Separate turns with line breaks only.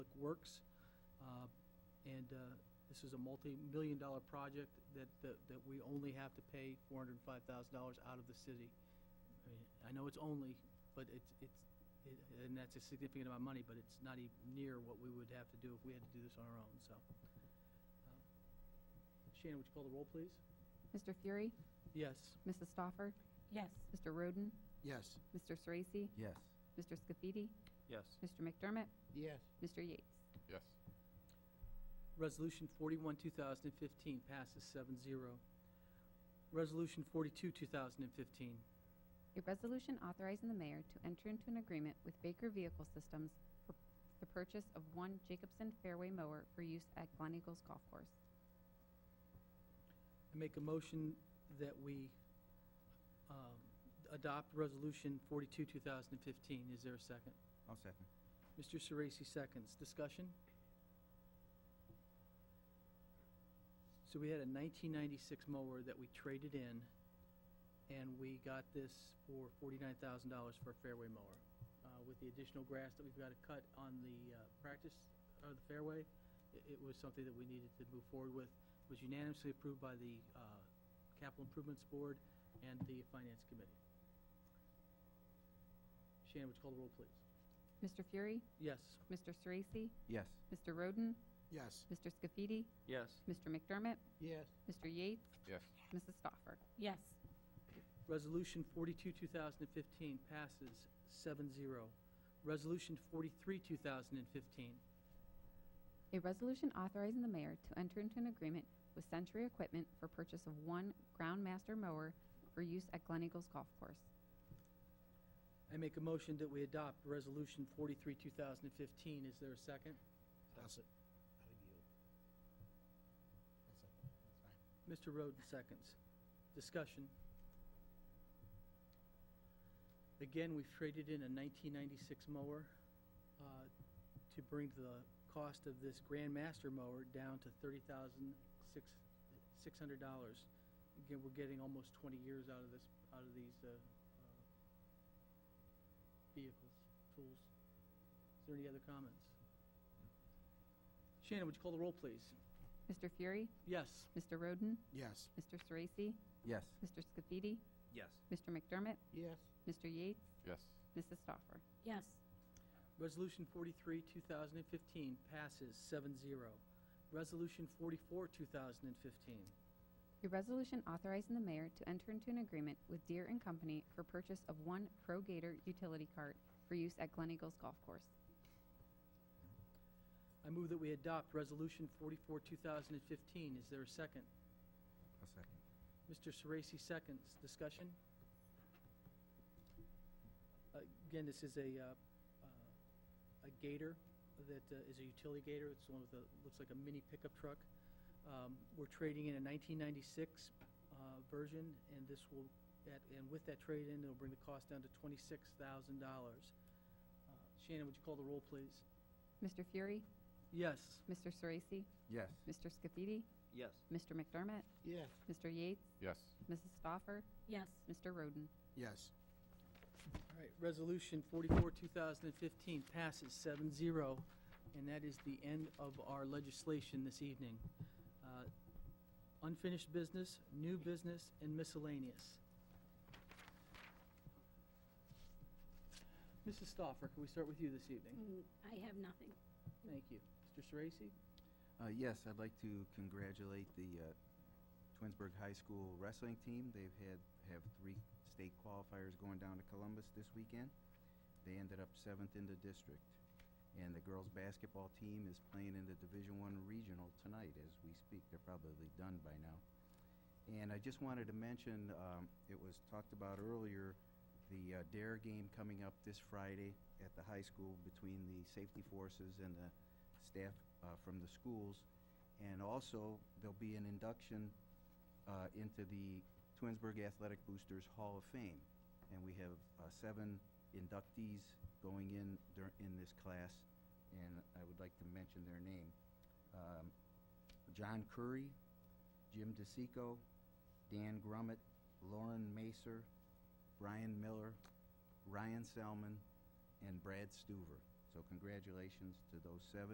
Works. Uh, And uh, this is a multi-million dollar project that, that that we only have to pay $405,000 out of the city. I mean, I know it's only, but it's, it's, it- and that's a significant amount of money, but it's not even near what we would have to do if we had to do this on our own, so. uh, Shannon, would you call the roll, please?
Mr. Fury,
Yes.
Mrs. Stoffer,
Yes.
Mr. Roden,
Yes.
Mr. Sorese,
Yes.
Mr. Scafidi,
Yes.
Mr. McDermott,
Yes.
Mr. Yates.
Yes.
Resolution 41, 2015 passes 7-0. Resolution 42, 2015.
A resolution authorizing the mayor to enter into an agreement with Baker Vehicle Systems for the purchase of one Jacobson Fairway mower for use at Glen Eagles Golf Course.
I make a motion that we um, adopt Resolution 42, 2015. Is there a second?
I'll second.
Mr. Sorese seconds. Discussion? So we had a 1996 mower that we traded in, and we got this for $49,000 for a fairway mower. Uh, With the additional grass that we've got to cut on the uh, practice, or the fairway, i- it was something that we needed to move forward with. It was unanimously approved by the uh, Capital Improvements Board and the Finance Committee. Shannon, would you call the roll, please?
Mr. Fury,
Yes.
Mr. Sorese,
Yes.
Mr. Roden,
Yes.
Mr. Scafidi,
Yes.
Mr. McDermott,
Yes.
Mr. Yates,
Yes.
Mrs. Stoffer.
Yes.
Resolution 42, 2015 passes 7-0. Resolution 43, 2015.
A resolution authorizing the mayor to enter into an agreement with Century Equipment for purchase of one Groundmaster mower for use at Glen Eagles Golf Course.
I make a motion that we adopt Resolution 43, 2015. Is there a second? Mr. Roden seconds. Discussion. Again, we've traded in a 1996 mower uh, to bring the cost of this Grandmaster mower down to $30,600. dollars. Again, we're getting almost 20 years out of this, out of these uh, uh, vehicles, tools. Is there any other comments? Shannon, would you call the roll, please?
Mr. Fury,
Yes.
Mr. Roden,
Yes.
Mr. Sorese,
Yes.
Mr. Scafidi,
Yes.
Mr. McDermott,
Yes.
Mr. Yates,
Yes.
Mrs. Stoffer.
Yes.
Resolution 43, 2015 passes 7-0. Resolution 44, 2015.
A resolution authorizing the mayor to enter into an agreement with Deere and Company for purchase of one Pro Gator utility cart for use at Glen Eagles Golf Course.
I move that we adopt Resolution 44, 2015. Is there a second?
I'll second.
Mr. Sorese seconds. Discussion? Uh, Again, this is a, uh, uh, a gator that uh, is a utility gator. It's one with a, looks like a mini pickup truck. Um, We're trading in a 1996 uh, version, and this will, at- and with that trade-in, it'll bring the cost down to $26,000. Uh, Shannon, would you call the roll, please?
Mr. Fury,
Yes.
Mr. Sorese,
Yes.
Mr. Scafidi,
Yes.
Mr. McDermott,
Yes.
Mr. Yates,
Yes.
Mrs. Stoffer,
Yes.
Mr. Roden.
Yes.
All right, Resolution 44, 2015 passes 7-0, and that is the end of our legislation this evening. Uh, Unfinished business, new business, and miscellaneous. Mrs. Stoffer, can we start with you this evening?
Mm, I have nothing.
Thank you. Mr. Sorese?
Uh, yes, I'd like to congratulate the uh, Twinsburg High School wrestling team. They've had have three state qualifiers going down to Columbus this weekend. They ended up seventh in the district, and the girls' basketball team is playing in the Division One regional tonight as we speak. They're probably done by now. And I just wanted to mention um, it was talked about earlier the uh, Dare game coming up this Friday at the high school between the safety forces and the staff uh, from the schools. And also, there'll be an induction uh, into the Twinsburg Athletic Boosters Hall of Fame. And we have uh, seven inductees going in dur- in this class, and I would like to mention their name. Um, John Curry, Jim DeSico, Dan Grummett, Lauren Macer, Brian Miller, Ryan Selman, and Brad Stuver. So congratulations to those seven.